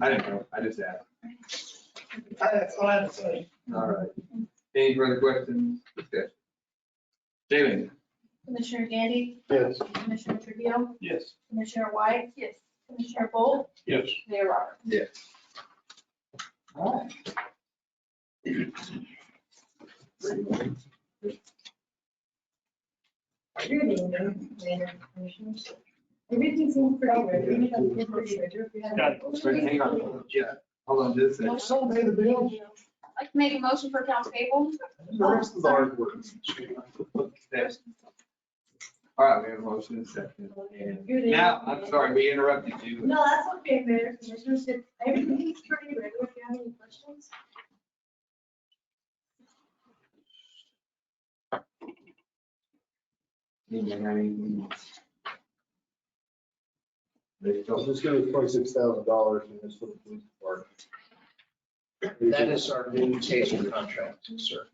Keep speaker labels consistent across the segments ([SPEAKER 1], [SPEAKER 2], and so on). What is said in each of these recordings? [SPEAKER 1] I didn't know, I just asked.
[SPEAKER 2] That's all I have to say.
[SPEAKER 1] All right. Any further questions, discussion? Jamie?
[SPEAKER 3] Commissioner Gandy,
[SPEAKER 4] Yes.
[SPEAKER 3] Commissioner Trivio,
[SPEAKER 4] Yes.
[SPEAKER 3] Commissioner White. Yes. Commissioner Bolt,
[SPEAKER 4] Yes.
[SPEAKER 3] Mayor Roberts.
[SPEAKER 1] Yes. All right.
[SPEAKER 5] Good evening, Mayor and Commissioners. Everything's in progress. We need a refrigerator if you have-
[SPEAKER 2] Got
[SPEAKER 1] Wait, Hang on, yeah, hold on just a second.
[SPEAKER 4] So made the bill.
[SPEAKER 3] I'd like to make a motion for accounts payable.
[SPEAKER 4] The rest of the hard work.
[SPEAKER 1] Yes. All right, we have a motion and a second. And
[SPEAKER 5] Good evening.
[SPEAKER 1] Now, I'm sorry, we interrupted you.
[SPEAKER 5] No, that's okay, Mayor, and Commissioners. If Everything's pretty regular. If you have any questions?
[SPEAKER 1] Anyone have anything else? They
[SPEAKER 4] So
[SPEAKER 1] still-
[SPEAKER 4] this goes twenty-six thousand dollars and this for the police department.
[SPEAKER 6] That is our new taser contract, sir.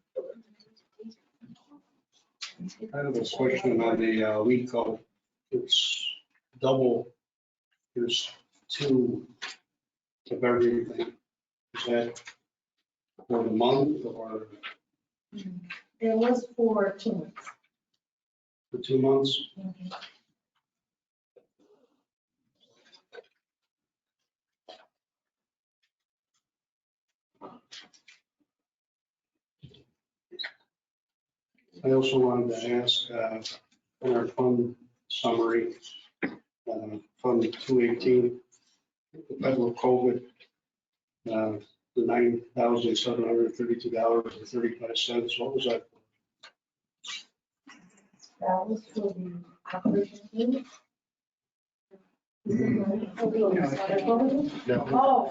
[SPEAKER 7] I have a question on the uh, WECO. It's double, there's two of everything. Is that for the month or
[SPEAKER 5] It was for two months.
[SPEAKER 7] for two months? I also wanted to ask, uh, in our fund summary, uh, Fund 218, the federal COVID, uh, the $9,732.35, what was that?
[SPEAKER 5] That was for the operation team. Is it money for the oversight body?
[SPEAKER 7] No.
[SPEAKER 5] Oh,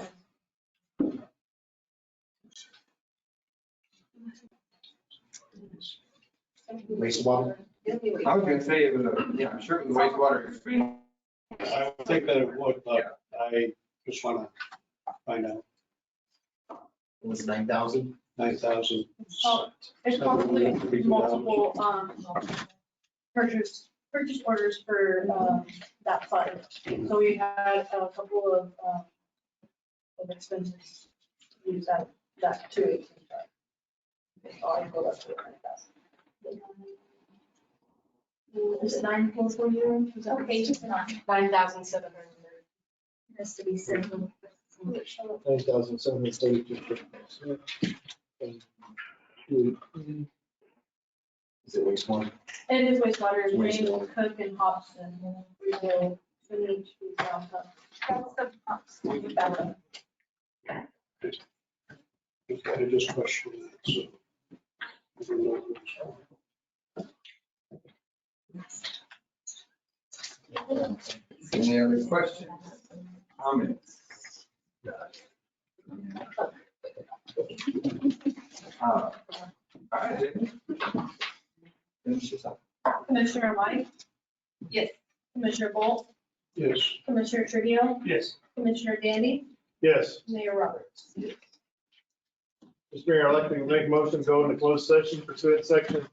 [SPEAKER 6] Wastewater?
[SPEAKER 1] I was gonna say it was a, yeah, I'm sure it was wastewater.
[SPEAKER 7] I would think that it would, but I just want to find out,
[SPEAKER 6] It was nine thousand?
[SPEAKER 7] 9,000.
[SPEAKER 3] Oh, There's probably multiple, um, purchase, purchase orders for, um, that fund. So we had a couple of, um, of expenses, to use that, that two eighteen. So I go up to nine thousand. Is it nine four four zero?
[SPEAKER 5] Okay, just
[SPEAKER 3] nine.
[SPEAKER 5] nine thousand seven hundred.
[SPEAKER 3] Has to be simple.
[SPEAKER 4] Nine thousand seven hundred thirty-two.
[SPEAKER 6] Is it wastewater?
[SPEAKER 3] And his wastewater is Raymond, Cook, and Hobson. We will, we need to round up.
[SPEAKER 7] I just questioned that, so. I don't know if it's-
[SPEAKER 1] Any other questions, comments? Uh, All right. Jamie. Finish this up.
[SPEAKER 3] Commissioner White?
[SPEAKER 5] Yes.
[SPEAKER 3] Commissioner Bolt?
[SPEAKER 7] Yes.
[SPEAKER 3] Commissioner Trivio?
[SPEAKER 2] Yes.
[SPEAKER 3] Commissioner Gandy?
[SPEAKER 4] Yes.
[SPEAKER 3] Mayor Roberts?
[SPEAKER 4] Mr. Mayor, I'd like to make a motion to go into closed session pursuant to section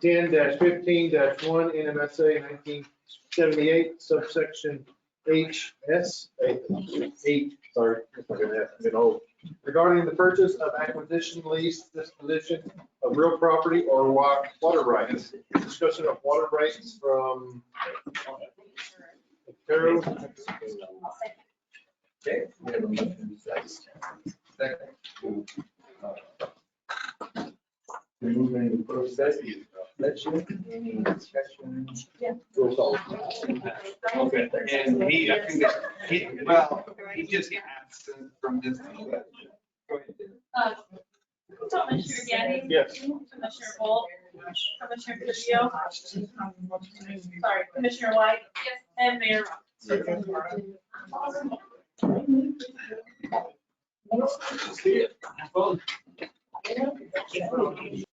[SPEAKER 4] ten fifteen one NMSA nineteen seventy-eight subsection H S. Eight, sorry, it's not gonna have to get old. Regarding the purchase of acquisition, lease, disposition of real property or wa- water rights. Discussion of water rights from Carol.
[SPEAKER 1] Okay, we have a motion, second. Second. We move into closed session. Let's you, any discussion?
[SPEAKER 4] Roll call.
[SPEAKER 1] Okay, and he, I think that, he, well, he just absent from this. Go ahead, Dan.
[SPEAKER 3] Uh, Commissioner Gandy?
[SPEAKER 4] Yes.
[SPEAKER 3] Commissioner Bolt? Commissioner Trivio? Sorry, Commissioner White? Yes. And Mayor Roberts?
[SPEAKER 1] See ya. Well,